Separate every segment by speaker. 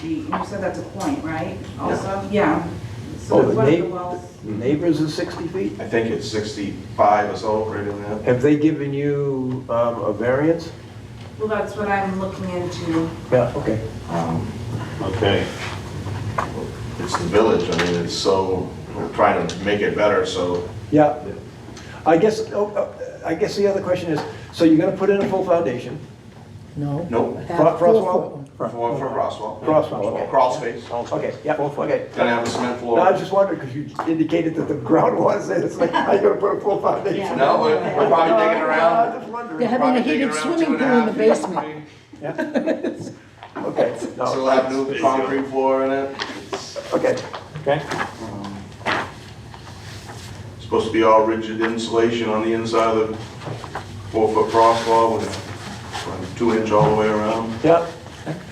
Speaker 1: sheet, you said that's a point, right? Also, yeah. So
Speaker 2: Oh,
Speaker 1: that's
Speaker 2: the
Speaker 1: one of the
Speaker 2: neigh-
Speaker 1: wells.
Speaker 2: The neighbors is 60 feet?
Speaker 3: I think it's 65 or so, right in there.
Speaker 2: Have they given you um, a variance?
Speaker 1: Well, that's what I'm looking into.
Speaker 2: Yeah, okay.
Speaker 3: Um, Okay. It's the village, I mean, it's so, we're trying to make it better, so
Speaker 2: Yeah. I guess, oh, uh, I guess the other question is, so you're gonna put in a full foundation?
Speaker 4: No.
Speaker 3: Nope.
Speaker 4: That
Speaker 2: Fro-
Speaker 4: four-foot
Speaker 2: Frostwall?
Speaker 4: one.
Speaker 3: For, for Roswell.
Speaker 2: Crosswalk, okay.
Speaker 3: Crawl space.
Speaker 2: Okay, yeah, okay.
Speaker 3: Gonna have a cement
Speaker 2: No, I was
Speaker 3: floor.
Speaker 2: just wondering, because you indicated that the ground was, and it's like, how you gonna put a full foundation?
Speaker 3: No, we're we're
Speaker 2: No,
Speaker 3: probably digging
Speaker 2: no, I was
Speaker 3: around.
Speaker 2: just
Speaker 4: They're
Speaker 2: wondering.
Speaker 4: having
Speaker 3: probably
Speaker 4: a
Speaker 3: digging
Speaker 4: heated
Speaker 3: around
Speaker 4: swimming
Speaker 3: two and a
Speaker 4: pool in the
Speaker 3: half feet.
Speaker 4: basement.
Speaker 2: Okay,
Speaker 3: So
Speaker 2: no,
Speaker 3: we'll have new concrete floor in it. It's
Speaker 2: okay.
Speaker 5: Okay.
Speaker 3: Supposed to be all rigid insulation on the inside of the four-foot cross wall with with two inch all the way around.
Speaker 2: Yeah,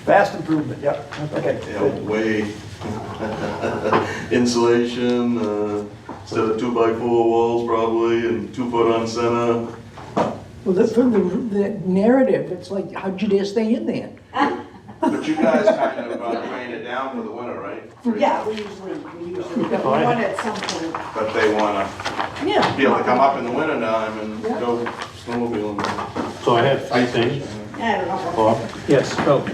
Speaker 2: vast improvement, yeah, okay.
Speaker 3: Yeah, way insulation, uh, instead of two-by-four walls probably, and two-foot on center.
Speaker 4: Well, that, from the, the narrative, it's like, how'd you dare stay in there?
Speaker 3: But you guys kind of uh, ran it down for the winter, right?
Speaker 1: Yeah, we usually, we usually, but we
Speaker 5: Fine.
Speaker 1: want at some point.
Speaker 3: But they wanna
Speaker 1: Yeah.
Speaker 3: be able to come up in the winter time and go snowmobiling.
Speaker 5: So I have three things,
Speaker 1: I don't know.
Speaker 5: Bob.
Speaker 2: Yes, oh,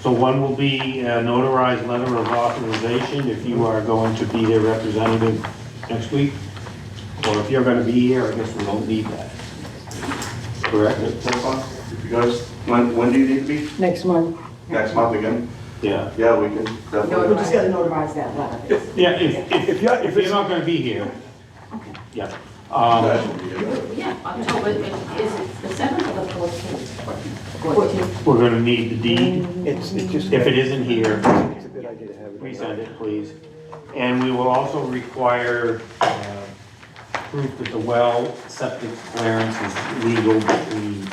Speaker 5: So one will be a notarized letter of authorization if you are going to be their representative next week. Or if you're gonna be here, I guess we don't need that. Correct?
Speaker 3: If you guys, when, when do you need to be?
Speaker 4: Next month.
Speaker 3: Next month again?
Speaker 5: Yeah.
Speaker 3: Yeah, we can
Speaker 1: No, we
Speaker 3: definitely.
Speaker 1: just gotta notarize that letter.
Speaker 5: Yeah, if, if,
Speaker 2: If you're,
Speaker 5: if
Speaker 2: if
Speaker 5: you're
Speaker 2: it's,
Speaker 5: not gonna be here. Yeah. Um,
Speaker 3: That should be it.
Speaker 6: Yeah, October, is it the seventh or the fourteenth? Fourteenth.
Speaker 5: we're gonna need the deed.
Speaker 2: it's it's just,
Speaker 5: If it isn't here,
Speaker 2: it's a good idea to have it.
Speaker 5: resend it, please. And we will also require uh, proof that the well septic clearance is legal between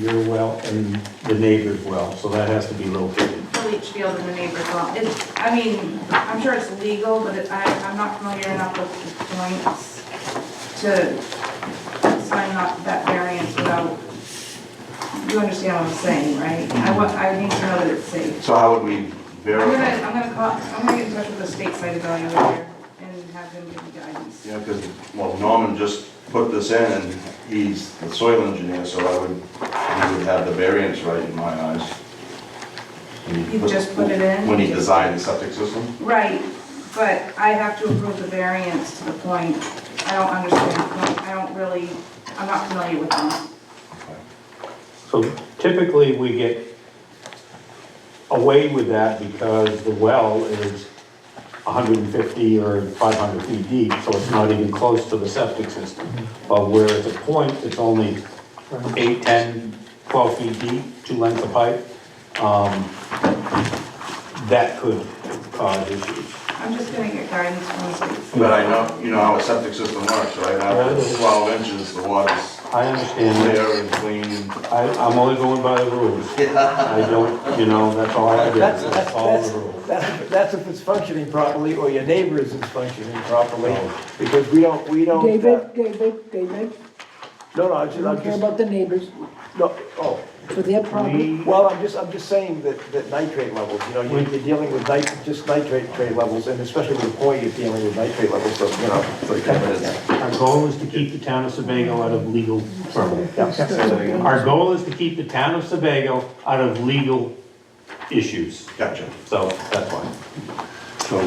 Speaker 5: your well and the neighbor's well, so that has to be located.
Speaker 1: From each field in the neighbor's lot. It's, I mean, I'm sure it's legal, but it- I, I'm not familiar enough with the points to sign up that variance without, you understand what I'm saying, right? I want, I need to know that it's safe.
Speaker 3: So how would we
Speaker 1: I'm gonna,
Speaker 3: verify?
Speaker 1: I'm gonna call, I'm gonna get in touch with the state site evaluator and have them give me guidance.
Speaker 3: Yeah, because, well, Norman just put this in, and he's the soil engineer, so I would, he would have the variance right in my eyes. When he
Speaker 1: You just put it in?
Speaker 3: When he designed the septic system?
Speaker 1: Right, but I have to approve the variance to the point, I don't understand, I don't really, I'm not familiar with them.
Speaker 5: So typically, we get away with that because the well is 150 or 500 feet deep, so it's not even close to the septic system. But where it's a point, it's only 8, 10, 12 feet deep, two lengths of pipe, um, that could cause issues.
Speaker 1: I'm just gonna get guidance from the state.
Speaker 3: But I know, you know how a septic system works, right? After 12 inches, the water's
Speaker 5: I understand that.
Speaker 3: clear and clean.
Speaker 5: I, I'm only going by the rules. I don't, you know, that's all I do,
Speaker 2: That's, that's,
Speaker 5: that's all
Speaker 2: that's,
Speaker 5: the rules.
Speaker 2: that's- that's if it's functioning properly, or your neighbor isn't functioning properly,
Speaker 5: Oh.
Speaker 2: because we don't, we don't. uh,
Speaker 4: David, David, David,
Speaker 2: No, no, I
Speaker 4: I
Speaker 2: just,
Speaker 4: don't
Speaker 2: I'm
Speaker 4: care
Speaker 2: just,
Speaker 4: about the neighbors,
Speaker 2: no, oh,
Speaker 4: for their problem.
Speaker 2: well, I'm just, I'm just saying that, that nitrate levels, you know, you're, you're dealing with nit, just nitrate trade levels, and especially with the point, you're dealing with nitrate levels, so, you know. it's like-
Speaker 5: Our goal is to keep the town of Sebago out of legal trouble. Our goal is to keep the town of Sebago out of legal issues,
Speaker 3: Gotcha.
Speaker 5: so that's why.
Speaker 7: So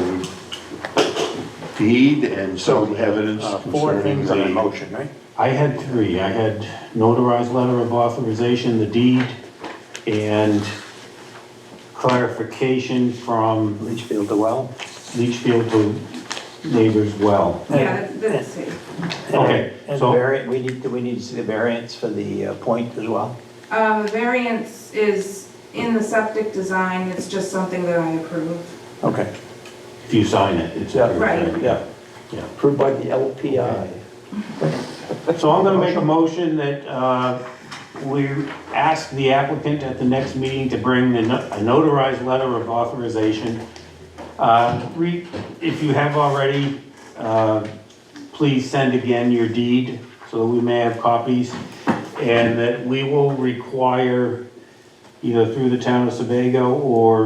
Speaker 7: deed and some evidence
Speaker 8: Uh, Four
Speaker 7: concerning
Speaker 8: things on a
Speaker 7: the
Speaker 8: motion, right?
Speaker 5: I had three, I had notarized letter of authorization, the deed, and clarification from
Speaker 8: Litchfield to well.
Speaker 5: Leachfield to neighbor's well.
Speaker 1: Yeah, that's, that's safe.
Speaker 5: Okay,
Speaker 8: And
Speaker 5: so-
Speaker 8: variant, we need, do we need to see the variance for the uh, point as well?
Speaker 1: Um, the variance is in the septic design, it's just something that I approve.
Speaker 8: Okay.
Speaker 5: If you sign it, it's.
Speaker 2: Yeah.
Speaker 1: Right.
Speaker 2: Yeah,
Speaker 5: Yeah.
Speaker 2: approved by the LPI.
Speaker 5: So I'm gonna make a motion that, uh, we ask the applicant at the next meeting to bring the no- a notarized letter of authorization. Uh, re, if you have already, uh, please send again your deed, so that we may have copies. And that we will require, either through the town of Sebago or